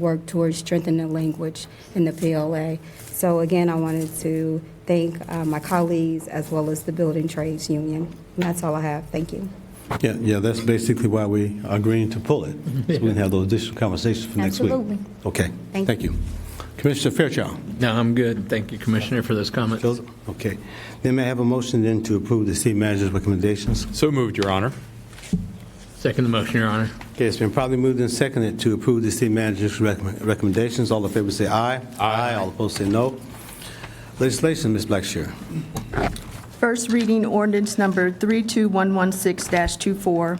work towards strengthening the language in the PLA. So again, I wanted to thank uh, my colleagues as well as the Building Trades Union. And that's all I have. Thank you. Yeah, yeah, that's basically why we are agreeing to pull it, so we can have those additional conversations for next week. Absolutely. Okay, Thank thank you. Commissioner Fairchild? No, I'm good. Thank you, Commissioner, for those comments. Those- Okay. Then may I have a motion then to approve the city manager's recommendations? So moved, Your Honor. Second the motion, Your Honor. Okay, it's been probably moved and seconded to approve the city manager's recommend- recommendations. All in favor say aye. Aye. All opposed say no. Legislation, Ms. Blackshear. First reading ordinance number 32116-24,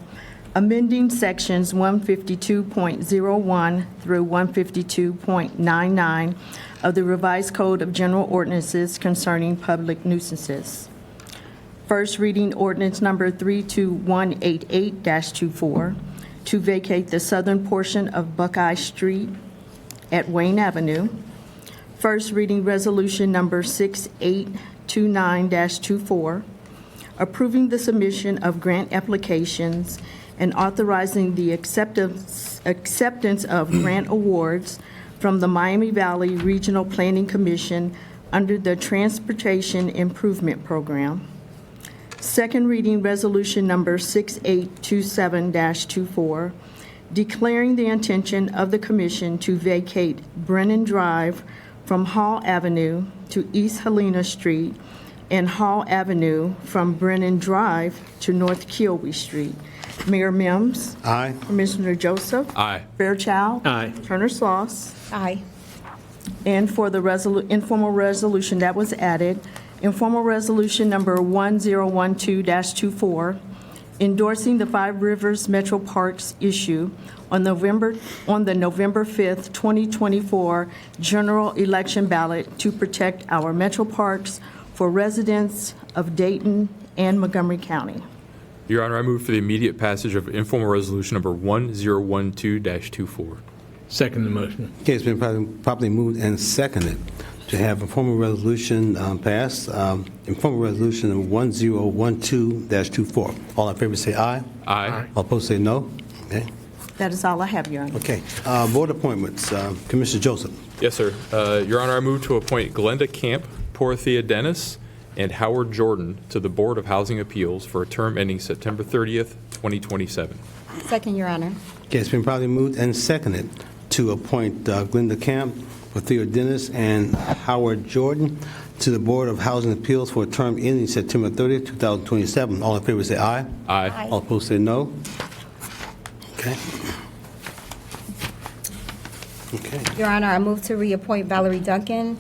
amending sections 152.01 through 152.99 of the revised Code of General Ordinances concerning public nuisances. First reading ordinance number 32188-24, to vacate the southern portion of Buckeye Street at Wayne Avenue. First reading resolution number 6829-24, approving the submission of grant applications and authorizing the acceptance, acceptance of grant awards from the Miami Valley Regional Planning Commission under the Transportation Improvement Program. Second reading resolution number 6827-24, declaring the intention of the commission to vacate Brennan Drive from Hall Avenue to East Helena Street and Hall Avenue from Brennan Drive to North Kiowee Street. Mayor Mims. Aye. Commissioner Joseph. Aye. Fairchild. Aye. Turner Sloss. Aye. And for the resolu- informal resolution that was added, informal resolution number 1012-24, endorsing the Five Rivers Metro Parks issue on November, on the November 5th, 2024 general election ballot to protect our metro parks for residents of Dayton and Montgomery County. Your Honor, I move for the immediate passage of informal resolution number 1012-24. Second the motion. Okay, it's been prob- properly moved and seconded to have a formal resolution um, passed, um, informal resolution of 1012-24. All in favor say aye. Aye. All opposed say no. Okay, That is all I have, Your Honor. Okay. Uh, board appointments, Um, Commissioner Joseph. Yes, sir. Uh, Your Honor, I move to appoint Glenda Camp, Porthia Dennis, and Howard Jordan to the Board of Housing Appeals for a term ending September 30th, 2027. Second, Your Honor. Okay, it's been properly moved and seconded to appoint uh, Glenda Camp, Theo Dennis, and Howard Jordan to the Board of Housing Appeals for a term ending September 30th, 2027. All in favor say aye. Aye. All opposed say no. Okay. Okay. Your Honor, I move to reappoint Valerie Duncan,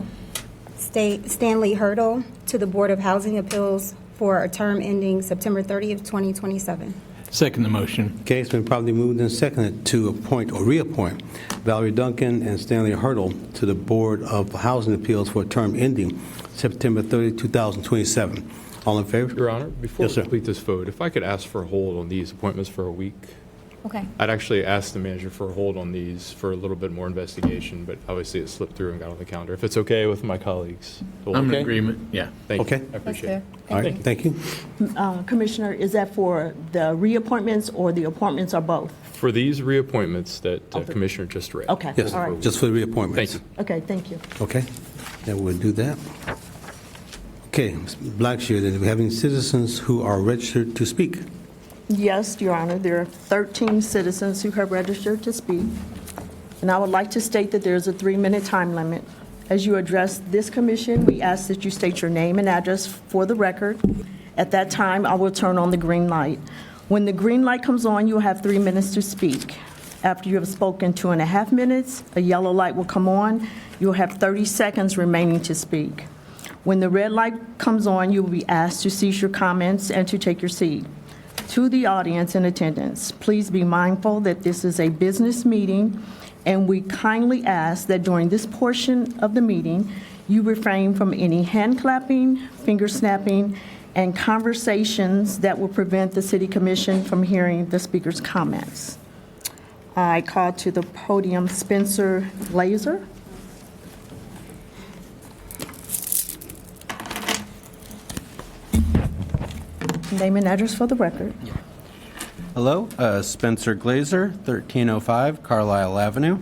Sta- Stanley Hurdle to the Board of Housing Appeals for a term ending September 30th, 2027. Second the motion. Okay, it's been properly moved and seconded to appoint or reappoint Valerie Duncan and Stanley Hurdle to the Board of Housing Appeals for a term ending September 30, 2027. All in favor? Your Honor, before Yes, we sir. complete this vote, if I could ask for a hold on these appointments for a week? Okay. I'd actually ask the manager for a hold on these for a little bit more investigation, but obviously it slipped through and got on the calendar. If it's okay with my colleagues. we'll- I'm in Okay. agreement. Yeah. Thank you. Okay. I appreciate it. All right, thank you. Uh, Commissioner, is that for the reappointments or the appointments or both? For these reappointments that uh, Commissioner just read. Okay, Yes, all right. just for the reappointments. Thank you. Okay, thank you. Okay, then we'll do that. Okay, Ms. Blackshear, then do we have any citizens who are registered to speak? Yes, Your Honor, there are 13 citizens who have registered to speak, and I would like to state that there is a three-minute time limit. As you address this commission, we ask that you state your name and address for the record. At that time, I will turn on the green light. When the green light comes on, you will have three minutes to speak. After you have spoken two and a half minutes, a yellow light will come on. You'll have 30 seconds remaining to speak. When the red light comes on, you will be asked to cease your comments and to take your seat. To the audience in attendance, please be mindful that this is a business meeting, and we kindly ask that during this portion of the meeting, you refrain from any hand clapping, finger snapping, and conversations that will prevent the city commission from hearing the speaker's comments. I call to the podium Spencer Laser. Name and address for the record. Hello, uh, Spencer Glazer, 1305 Carlisle Avenue.